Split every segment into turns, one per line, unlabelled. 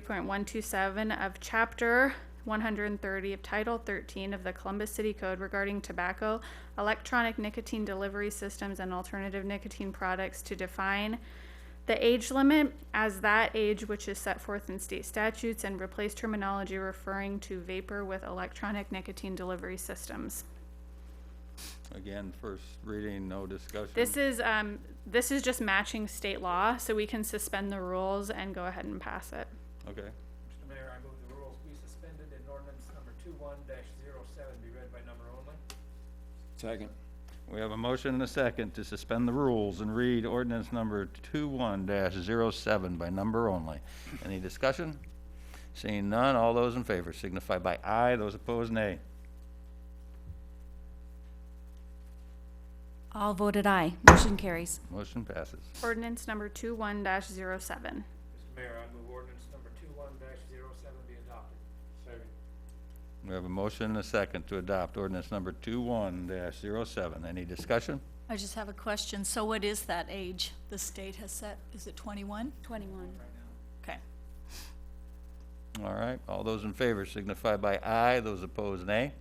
point one two seven of chapter one hundred and thirty of title thirteen of the Columbus City Code regarding tobacco, electronic nicotine delivery systems and alternative nicotine products to define the age limit as that age which is set forth in state statutes and replace terminology referring to vapor with electronic nicotine delivery systems.
Again, first reading, no discussion.
This is, um, this is just matching state law, so we can suspend the rules and go ahead and pass it.
Okay,
Mr. Mayor, I move the rules be suspended and ordinance number two-one dash zero-seven be read by number only.
Second.
we have a motion and a second to suspend the rules and read ordinance number 21-07 by number only. Any discussion? Seeing none, all those in favor signify by aye, those opposed nay.
All voted aye. Motion carries.
Motion passes.
Ordinance number two one dash zero seven.
Mr. Mayor, I move ordinance number two-one dash zero-seven be adopted. Second.
We have a motion and a second to adopt ordinance number 21-07. Any discussion?
I just have a question. So what is that age the state has set? Is it 21?
21.
Okay.
All right, all those in favor signify by aye, those opposed nay.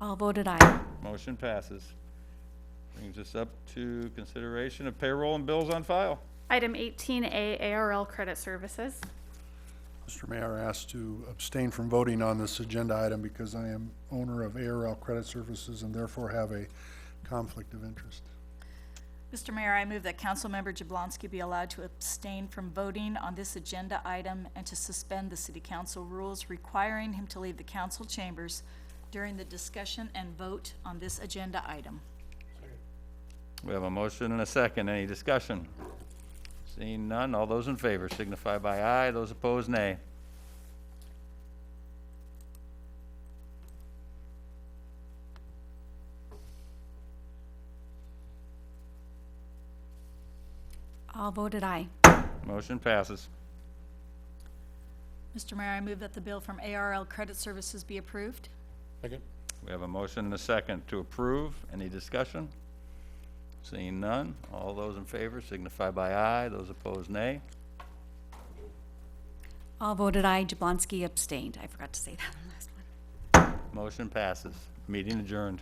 All voted aye.
Motion passes. Brings us up to consideration of payroll and bills on file.
Item eighteen A, ARL Credit Services.
Mr. Mayor, asked to abstain from voting on this agenda item because I am owner of ARL Credit Services and therefore have a conflict of interest.
Mr. Mayor, I move that Councilmember Jablonski be allowed to abstain from voting on this agenda item and to suspend the city council rules requiring him to leave the council chambers during the discussion and vote on this agenda item.
We have a motion and a second. Any discussion? Seeing none, all those in favor signify by aye, those opposed nay.
All voted aye.
Motion passes.
Mr. Mayor, I move that the bill from ARL Credit Services be approved.
Second.
We have a motion and a second to approve. Any discussion? Seeing none, all those in favor signify by aye, those opposed nay.
All voted aye. Jablonski abstained. I forgot to say that on the last one.
Motion passes. Meeting adjourned.